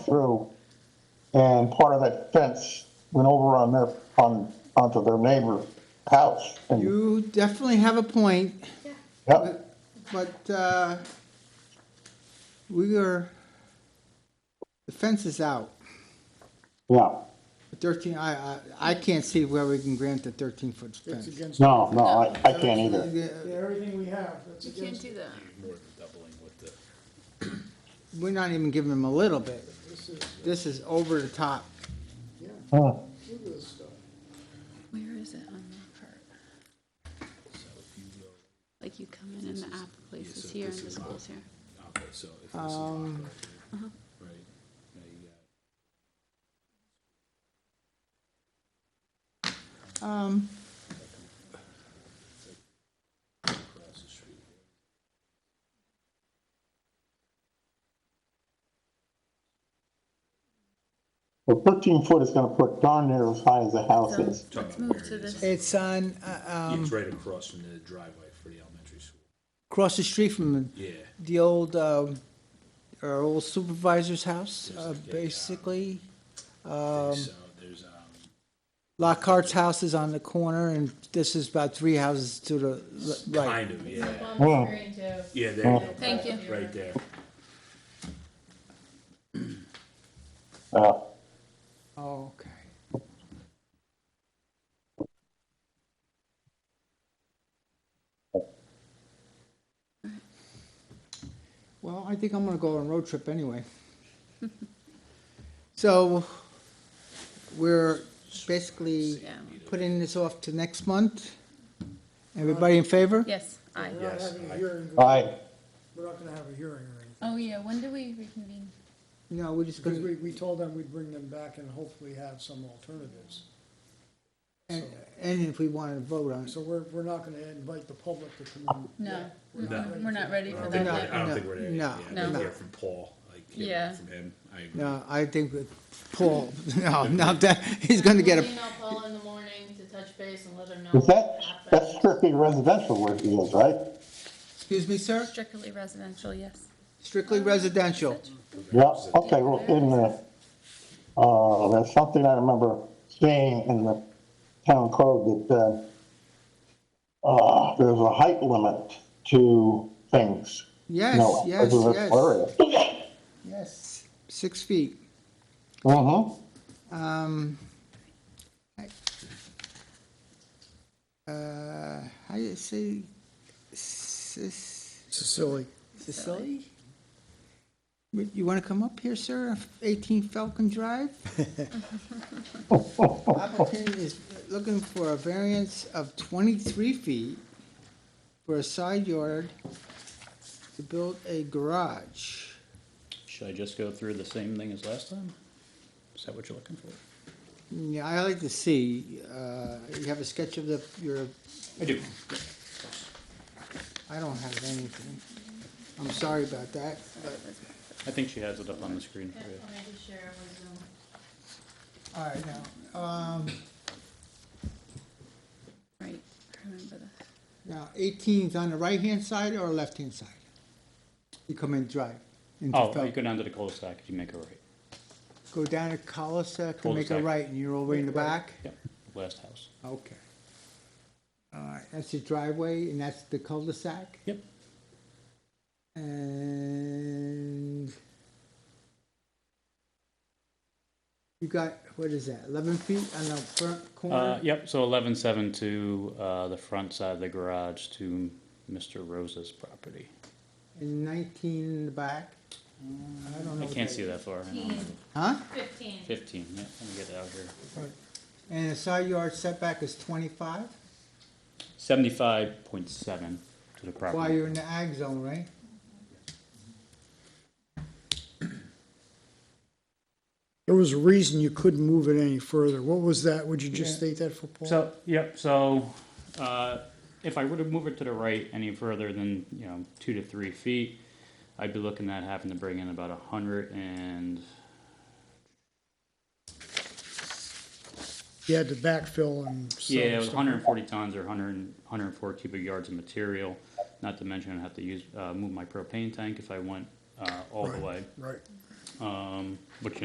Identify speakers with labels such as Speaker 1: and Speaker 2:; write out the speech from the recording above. Speaker 1: through, and part of that fence went over on their, on, onto their neighbor's house. And,
Speaker 2: You definitely have a point,
Speaker 1: yep,
Speaker 2: but, but, uh, we are, the fence is out.
Speaker 1: yeah,
Speaker 2: Thirteen, I, I, I can't see where we can grant the thirteen-foot
Speaker 3: It's
Speaker 2: fence.
Speaker 3: against,
Speaker 1: no, no, I, I can't either.
Speaker 2: Yeah,
Speaker 3: everything we have, that's
Speaker 4: You can't
Speaker 3: against,
Speaker 4: do that.
Speaker 2: We're not even giving them a little bit.
Speaker 3: this is,
Speaker 2: This is over the top.
Speaker 3: yeah,
Speaker 1: Huh.
Speaker 3: look at this stuff.
Speaker 4: Where is it on that part? Like you come in and the app place is here and the school's here.
Speaker 5: Okay, so if this is Lock Road, right, now you got
Speaker 2: Um,
Speaker 5: across the street.
Speaker 1: Well, thirteen foot is gonna put darn near as high as the house
Speaker 4: So
Speaker 1: is.
Speaker 4: let's move to this.
Speaker 2: it's on, uh,
Speaker 5: Yeah,
Speaker 2: um,
Speaker 5: It's right across from the driveway for the elementary school.
Speaker 2: across the street from
Speaker 5: Yeah,
Speaker 2: the old, um, our old supervisor's house, uh,
Speaker 5: There's a-
Speaker 2: basically.
Speaker 5: I think so there's, um,
Speaker 2: Lockhart's house is on the corner, and this is about three houses to the le- right.
Speaker 5: kind of, yeah,
Speaker 1: Yeah.
Speaker 5: yeah, there you go.
Speaker 4: Thank you.
Speaker 5: Right there.
Speaker 1: Yeah.
Speaker 2: Oh, okay. Well, I think I'm gonna go on a road trip anyway. So, we're basically
Speaker 4: Yeah.
Speaker 2: putting this off to next month? Everybody in favor?
Speaker 4: Yes, I.
Speaker 3: We're not
Speaker 5: Yes,
Speaker 3: having a
Speaker 5: I-
Speaker 3: hearing,
Speaker 1: All right,
Speaker 6: Oh.
Speaker 3: we're not gonna have a hearing or anything,
Speaker 4: Oh, yeah, when do we reconvene?
Speaker 2: No, we're just
Speaker 3: because
Speaker 2: gonna,
Speaker 3: we, we told them we'd bring them back and hopefully have some alternatives.
Speaker 2: and, and if we wanna vote on it.
Speaker 3: So we're, we're not gonna invite the public to come in.
Speaker 4: No,
Speaker 3: We're not
Speaker 4: Mm-mm,
Speaker 3: ready
Speaker 4: we're
Speaker 3: for
Speaker 4: not
Speaker 3: that.
Speaker 4: ready
Speaker 5: I
Speaker 4: for
Speaker 5: don't
Speaker 4: that
Speaker 5: think,
Speaker 2: No,
Speaker 5: we're-
Speaker 4: yet.
Speaker 5: I
Speaker 2: no,
Speaker 5: don't think we're there,
Speaker 2: no,
Speaker 5: yeah, I didn't
Speaker 4: no.
Speaker 5: hear from Paul, like,
Speaker 4: Yeah.
Speaker 5: hear from him, I agree.
Speaker 2: No, I think with Paul, no, not that, he's gonna get
Speaker 7: We'll
Speaker 2: a,
Speaker 7: Email Paul in the morning to touch base and let him know.
Speaker 1: is that,
Speaker 7: what happened.
Speaker 1: that's strictly residential where he is, right?
Speaker 2: excuse me, sir?
Speaker 4: Strictly residential, yes.
Speaker 2: Strictly residential.
Speaker 1: Yeah, okay, well, in the, uh, there's something I remember seeing in the town code that, uh, uh, there's a height limit to things.
Speaker 2: Yes,
Speaker 1: No,
Speaker 2: yes, yes.
Speaker 1: yes.
Speaker 2: Yes. Six feet.
Speaker 1: Mm-hmm,
Speaker 2: Um, I- uh, how do you say, Sis-
Speaker 3: Sicily.
Speaker 2: Sicily? Would- You wanna come up here, sir, eighteen Falcon Drive? Applicant is looking for a variance of twenty-three feet for a side yard to build a garage.
Speaker 6: Should I just go through the same thing as last time? Is that what you're looking for?
Speaker 2: Mm, Yeah, I like to see, uh, you have a sketch of the, your,
Speaker 6: I do.
Speaker 2: I don't have anything. I'm sorry about that, but,
Speaker 6: I think she has it up on the screen
Speaker 7: Yeah,
Speaker 6: for you.
Speaker 7: I'll make sure it was,
Speaker 2: all right,
Speaker 7: um,
Speaker 2: now, um,
Speaker 4: Right, I remember that.
Speaker 2: now eighteen's on the right-hand side or left-hand side? You come in drive. into
Speaker 6: Oh,
Speaker 2: Fel-
Speaker 6: you go down to the cul-de-sac if you make a right.
Speaker 2: Go down to Coliseum, and make a
Speaker 6: Cul-de-sac.
Speaker 2: right, and you're all the way in the back?
Speaker 6: Yep, last house.
Speaker 2: Okay. All right, that's the driveway, and that's the cul-de-sac?
Speaker 6: Yep.
Speaker 2: And you got, what is that, eleven feet on the front
Speaker 6: Uh,
Speaker 2: corner?
Speaker 6: yep, so eleven seven to, uh, the front side of the garage to Mr. Rose's property.
Speaker 2: And nineteen in the back? I don't know.
Speaker 6: I
Speaker 2: what
Speaker 6: can't see that far. Hang on.
Speaker 2: Huh?
Speaker 7: Fifteen.
Speaker 6: Fifteen, yeah, let me get it out here.
Speaker 2: And the side yard setback is twenty-five,
Speaker 6: Seventy-five point seven to the property.
Speaker 2: while you're in the ag zone, right?
Speaker 3: There was a reason you couldn't move it any further. What was that? Would you just
Speaker 6: Yeah.
Speaker 3: state that for Paul?
Speaker 6: So, yep, so, uh, if I were to move it to the right any further than, you know, two to three feet, I'd be looking at having to bring in about a hundred and,
Speaker 3: You had to backfill and. sell
Speaker 6: yeah, it was
Speaker 3: stuff.
Speaker 6: hundred and forty tons or hundred and, hundred and four cubic yards of material. Not to mention I'd have to use, uh, move my propane tank if I went, uh, all the
Speaker 3: Right,
Speaker 6: way,
Speaker 3: Right.
Speaker 6: um, which,